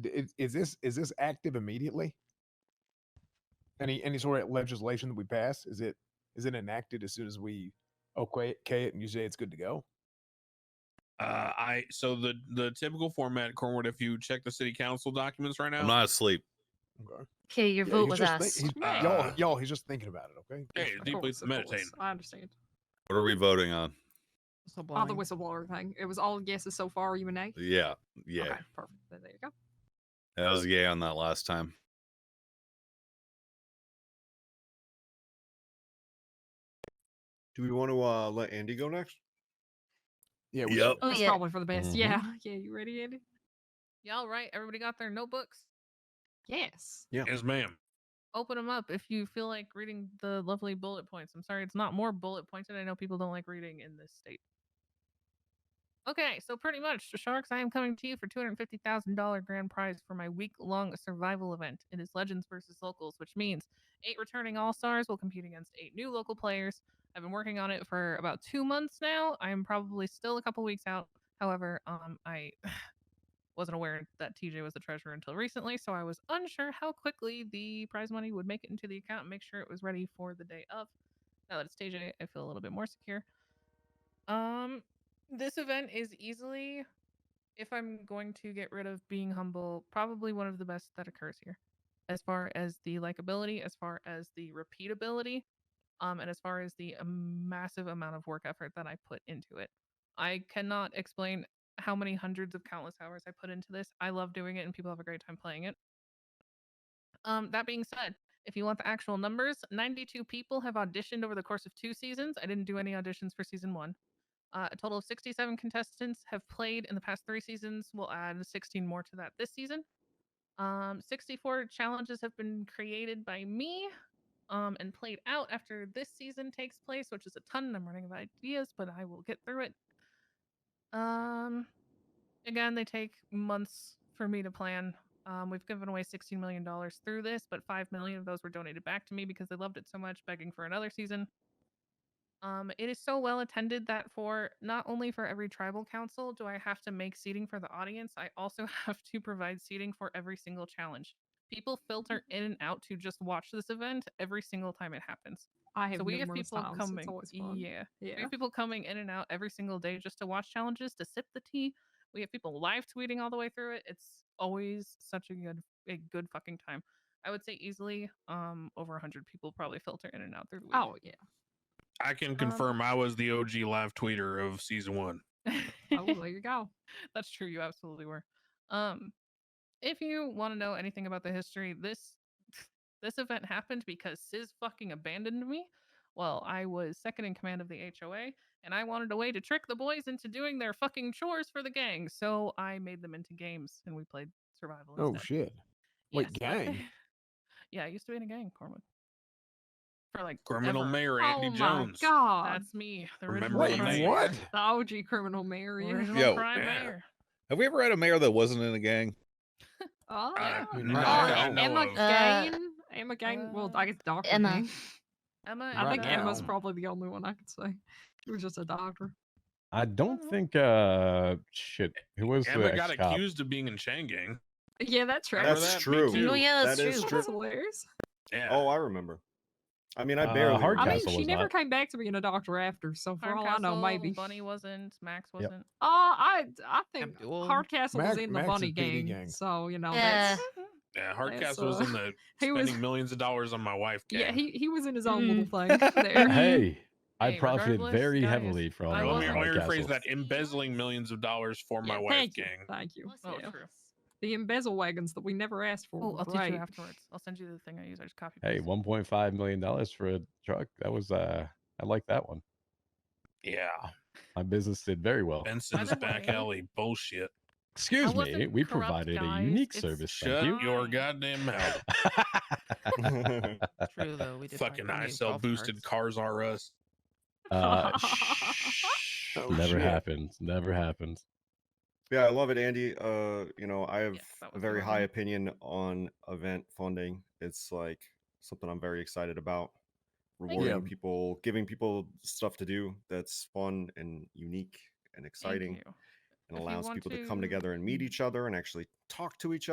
D- Is, is this is this active immediately? Any any sort of legislation that we pass is it is it enacted as soon as we okay okay it and you say it's good to go? Uh, I so the the typical format, Cornwood. If you check the city council documents right now, I'm not asleep. Okay. Okay, your Yeah, vote he's was just asked. think- he's- Right. y'all, Uh, y'all, he's just thinking about it. Okay. hey, Just- deeply Of course, of meditating. course. I understand. What are we voting on? All Whistleblowing. the whistleblower thing. It was all guesses so far. You and A. Yeah, yeah. Okay, perfect. Then There you go. That was yay on that last time. Do we want to uh, let Andy go next? yeah. We Yep. should. Oh That's yeah. probably for the best. Mhm. Yeah. Yeah. You ready, Andy? Y'all right? Everybody got their notebooks? Yes. Yes, ma'am. Open them up if you feel like reading the lovely bullet points. I'm sorry, it's not more bullet pointed. I know people don't like reading in this state. Okay, so pretty much, Sharks, I am coming to you for $250,000 grand prize for my week long survival event. It is Legends versus Locals, which means eight returning All Stars will compete against eight new local players. I've been working on it for about two months now. I am probably still a couple weeks out. However, um, I wasn't aware that TJ was the treasurer until recently, so I was unsure how quickly the prize money would make it into the account and make sure it was ready for the day of. Now that it's TJ, I feel a little bit more secure. Um, this event is easily, if I'm going to get rid of being humble, probably one of the best that occurs here, as far as the likability, as far as the repeatability, um, and as far as the um, massive amount of work effort that I put into it. I cannot explain how many hundreds of countless hours I put into this. I love doing it and people have a great time playing it. Um, that being said, if you want the actual numbers, 92 people have auditioned over the course of two seasons. I didn't do any auditions for season one. Uh, a total of 67 contestants have played in the past three seasons. We'll add 16 more to that this season. Um, 64 challenges have been created by me um, and played out after this season takes place, which is a ton. I'm running out of ideas, but I will get through it. Um, again, they take months for me to plan. Um, we've given away sixteen million dollars through this, but five million of those were donated back to me because they loved it so much, begging for another season. Um, it is so well attended that for not only for every tribal council do I have to make seating for the audience, I also have to provide seating for every single challenge. People filter Mm-hmm. in and out to just watch this event every single time it happens. I have. So we have numerous people times. coming. It's always fun. Yeah. We Yeah. have people coming in and out every single day just to watch challenges, to sip the tea. We have people live tweeting all the way through it. It's always such a good a good fucking time. I would say easily um over 100 people probably filter in and out through the week. Oh yeah. I Um, can confirm I was the OG live tweeter of season one. Oh, there you go. That's true. You absolutely were. Um, if you want to know anything about the history, this this event happened because Sis fucking abandoned me. Well, I was second in command of the HOA, and I wanted a way to trick the boys into doing their fucking chores for the gang. So I made them into games, and we played survival. Oh instead. shit. Wait, gang? yeah, I used to be in a gang, Cornwood. For like Criminal ever. Mayor Andy oh Jones. my God. That's me. The Remember original Wait, when they- mayor. what? the OG criminal Mary. Original Yo, prime yeah. mayor. Have we ever had a mayor that wasn't in a gang? Oh, Uh, I mean, no, right I now- know Emma of. Uh, Gain. Emma Gain. Well, uh, I guess Doctor. Emma. Gain. Emma. I Right think Emma's now. probably the only one I could say. She was just a doctor. I know. don't think uh shit. Eh, Who was Emma the got ex cop? accused of being in Chang Gang. Yeah, that's right. Remember That's that? Me true. too. Oh yeah, that's That true. is That true. was hilarious. Yeah. Oh, I remember. I mean, I Uh, barely. hard I remember. mean, Castle she was never not. came back to being a doctor after, so for all I know, Hardcastle, maybe. Bunny wasn't. Max Yep. wasn't. Oh, I I think Abdul. Hardcastle was Mac- in the Max bunny is PD gang, gang. so you know Yeah. that's yeah. that's, Hardcastle was uh, in the he was- spending millions of dollars on my wife. Gang. yeah he he was in his own little thing there. Hey, I Hey, profited regardless, very guys, heavily from. uh, I Now, let me, wasn't- Howard let me rephrase Castle. that: embezzling millions of dollars for my Yeah, wife thank you, gang. Thank you. Oh, Yeah. true. The embezzle wagons that we never asked for. Oh, were I'll teach you great. afterwards. I'll send you the thing I use. I just copy. Hey, paste. one point five million dollars for a truck. That was uh, I like that one. Yeah, My business did very well. Benson's the back way- alley bullshit. Excuse me, wasn't we corrupt, provided guys. a unique It's- service. Shut thank your Fine. goddamn mouth. you. True though. We did talk Fucking about I getting sell golf boosted carts. cars R Us. uh, shh, Oh, never shit. happened. Never happened. yeah, I love it, Andy. Uh, you know, I have Yes, that was a the very one. high opinion on event funding. It's like something I'm very excited about. you. Rewarding Yeah. people, giving people stuff to do that's fun and unique and Thank exciting, you. and If you allows want people to come to- Mm-hmm. together and meet each other and actually talk to each other.